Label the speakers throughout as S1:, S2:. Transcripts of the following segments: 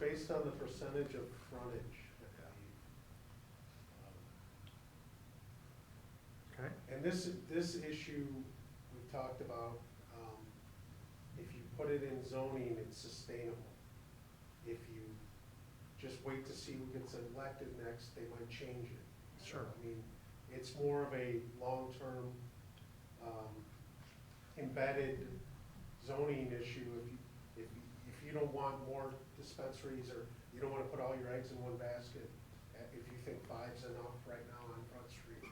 S1: based on the percentage of frontage, um, I believe.
S2: Okay.
S1: And this, this issue we talked about, um, if you put it in zoning, it's sustainable. If you just wait to see who gets elected next, they might change it. So,
S2: Sure.
S1: I mean, it's more of a long-term, um, embedded zoning issue. If you, if, you- if you don't want more dispensaries or you don't wanna put all your eggs in one basket, uh, if you think five's enough right now on Front Street,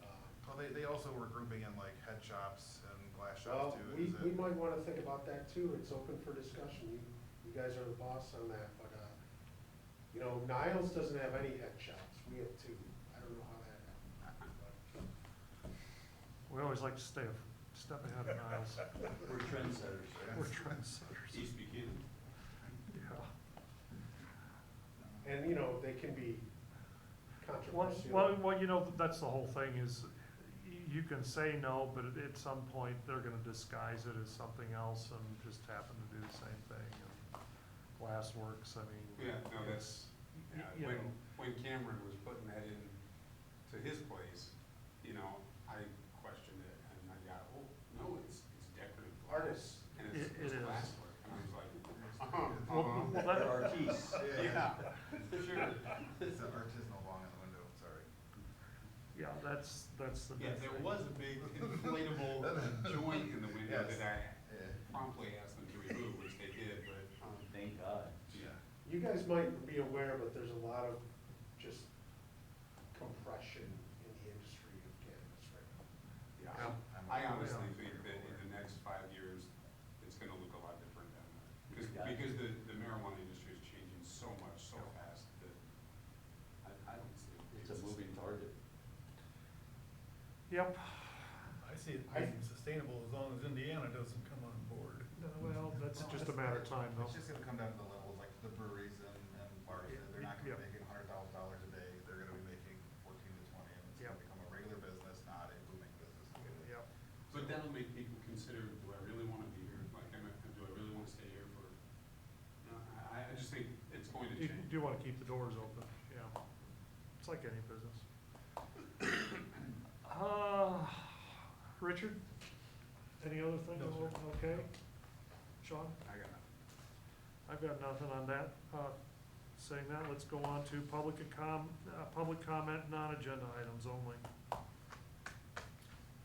S1: um,
S3: Well, they, they also were grouping in like head shops and glass shops
S1: well,
S3: too.
S1: we,
S3: Is it-
S1: we might wanna think about that too, it's open for discussion, you, you guys are the boss on that, but, uh, you know, Niles doesn't have any head shops, we have two, I don't know how that happened. but-
S2: We always like to stay a step ahead of Niles.
S4: We're trendsetters.
S2: We're trendsetters.
S4: East Buchanan.
S2: Yeah.
S1: And, you know, they can be
S2: Well,
S1: controversial.
S2: well, well, you know, that's the whole thing is, y- you can say no, but at- at some point, they're gonna disguise it as something else and just happen to do the same thing. And Glassworks, I mean.
S5: Yeah, no, that's,
S2: y-
S5: yeah,
S2: you
S5: when,
S2: know.
S5: when Cameron was putting that in to his place, you know, I questioned it and I got, oh, no, it's, it's decorative glass.
S1: Artists,
S5: And
S2: It-
S5: it's,
S2: it
S5: it's
S2: is.
S5: glassware. And I was like,
S2: Well,
S5: uh-huh,
S2: well,
S5: uh-huh.
S4: They're
S2: that-
S4: artists.
S5: Yeah, sure.
S3: It's an artisanal long in the window, sorry.
S2: Yeah, that's, that's the
S5: Yeah,
S2: big
S5: there
S2: thing.
S5: was a big inflatable joint in the window
S3: Yes.
S5: that
S3: Yeah.
S5: I promptly asked them to remove, which they did, but, um,
S4: Thank God.
S5: yeah.
S1: you guys might be aware, but there's a lot of just compression in the industry of cannabis right now.
S5: Yeah,
S2: Yeah.
S5: I I honestly think that in the next five years, it's gonna look a lot different down there. Because,
S4: Yeah.
S5: because the, the marijuana industry is changing so much, so fast that I, I don't see. it.
S4: It's a moving target.
S2: Yep.
S6: I see it
S1: I-
S6: being sustainable as long as Indiana doesn't come on board.
S2: Well, that's just a matter of time though.
S3: It's just gonna come down to the levels, like the breweries and, and bars,
S2: Yeah,
S3: they're not gonna
S2: yeah.
S3: be making hundred thousand dollars a day, they're gonna be making fourteen to twenty, and it's
S2: Yeah.
S3: gonna become a regular business, not a booming business.
S2: Yep.
S5: But that'll make people consider, do I really wanna be here? Like, am I, do I really wanna stay here for, no, I, I just think it's going to
S2: You
S5: change.
S2: do wanna keep the doors open, yeah. It's like any business. Uh, Richard, any other thing?
S6: No, sir.
S2: Okay. Sean,
S5: I got nothing.
S2: I've got nothing on that. Uh, saying that, let's go on to public and com, uh, public comment, non-agenda items only.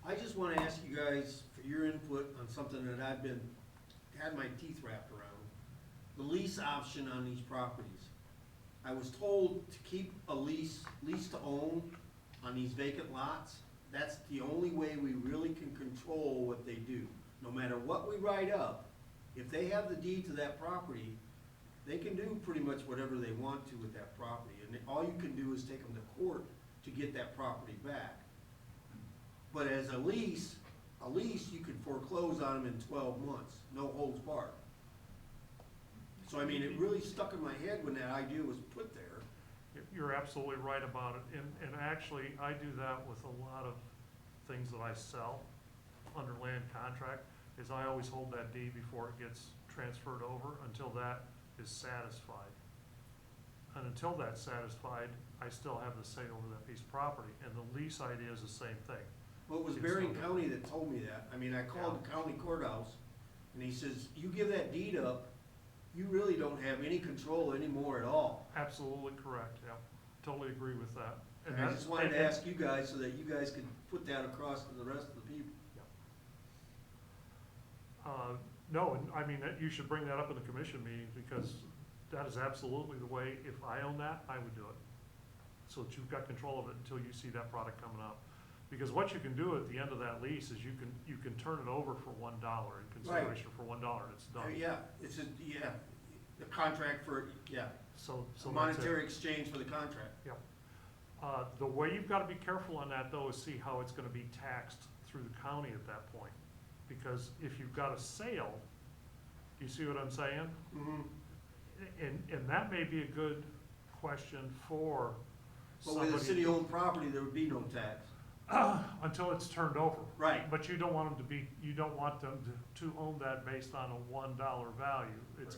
S7: I just wanna ask you guys for your input on something that I've been, had my teeth wrapped around. The lease option on these properties. I was told to keep a lease, lease to own on these vacant lots. That's the only way we really can control what they do. No matter what we write up, if they have the deed to that property, they can do pretty much whatever they want to with that property. And all you can do is take them to court to get that property back. But as a lease, a lease, you could foreclose on them in twelve months, no holds barred. So I mean, it really stuck in my head when that idea was put there.
S2: You're- You're absolutely right about it, and, and actually, I do that with a lot of things that I sell under land contract, is I always hold that deed before it gets transferred over until that is satisfied. And until that's satisfied, I still have the say over that piece of property, and the lease idea is the same thing.
S7: Well, it was Bering County that told me that. I mean, I called the county courthouse, and he says, you give that deed up, you really don't have any control anymore at all.
S2: Absolutely correct, yeah, totally agree with that. And
S7: I
S2: that's-
S7: just wanted to
S2: and-
S7: ask you guys so that you guys could put that across to the rest of the people.
S2: Uh, No, and I mean, that- you should bring that up in the commission meeting, because that is absolutely the way, if I own that, I would do it. So that you've got control of it until you see that product coming up. Because what you can do at the end of that lease is you can, you can turn it over for one dollar in consideration for one dollar, and it's
S7: Uh,
S2: done.
S7: Yeah, it's a, yeah, the contract for, yeah,
S2: So, so
S7: a
S2: that's it.
S7: monetary exchange for the contract.
S2: Uh, The way you've got to be careful on that, though, is see how it's going to be taxed through the county at that point. Because if you've got a sale, you see what I'm saying?
S7: Mhm.
S2: And, and that may be a good question for
S7: But with a
S2: somebody,
S7: city-owned property, there would be no tax.
S2: until it's turned over.
S7: Right.
S2: But you don't want them to be, you don't want them to- to own that based on a one dollar value. It's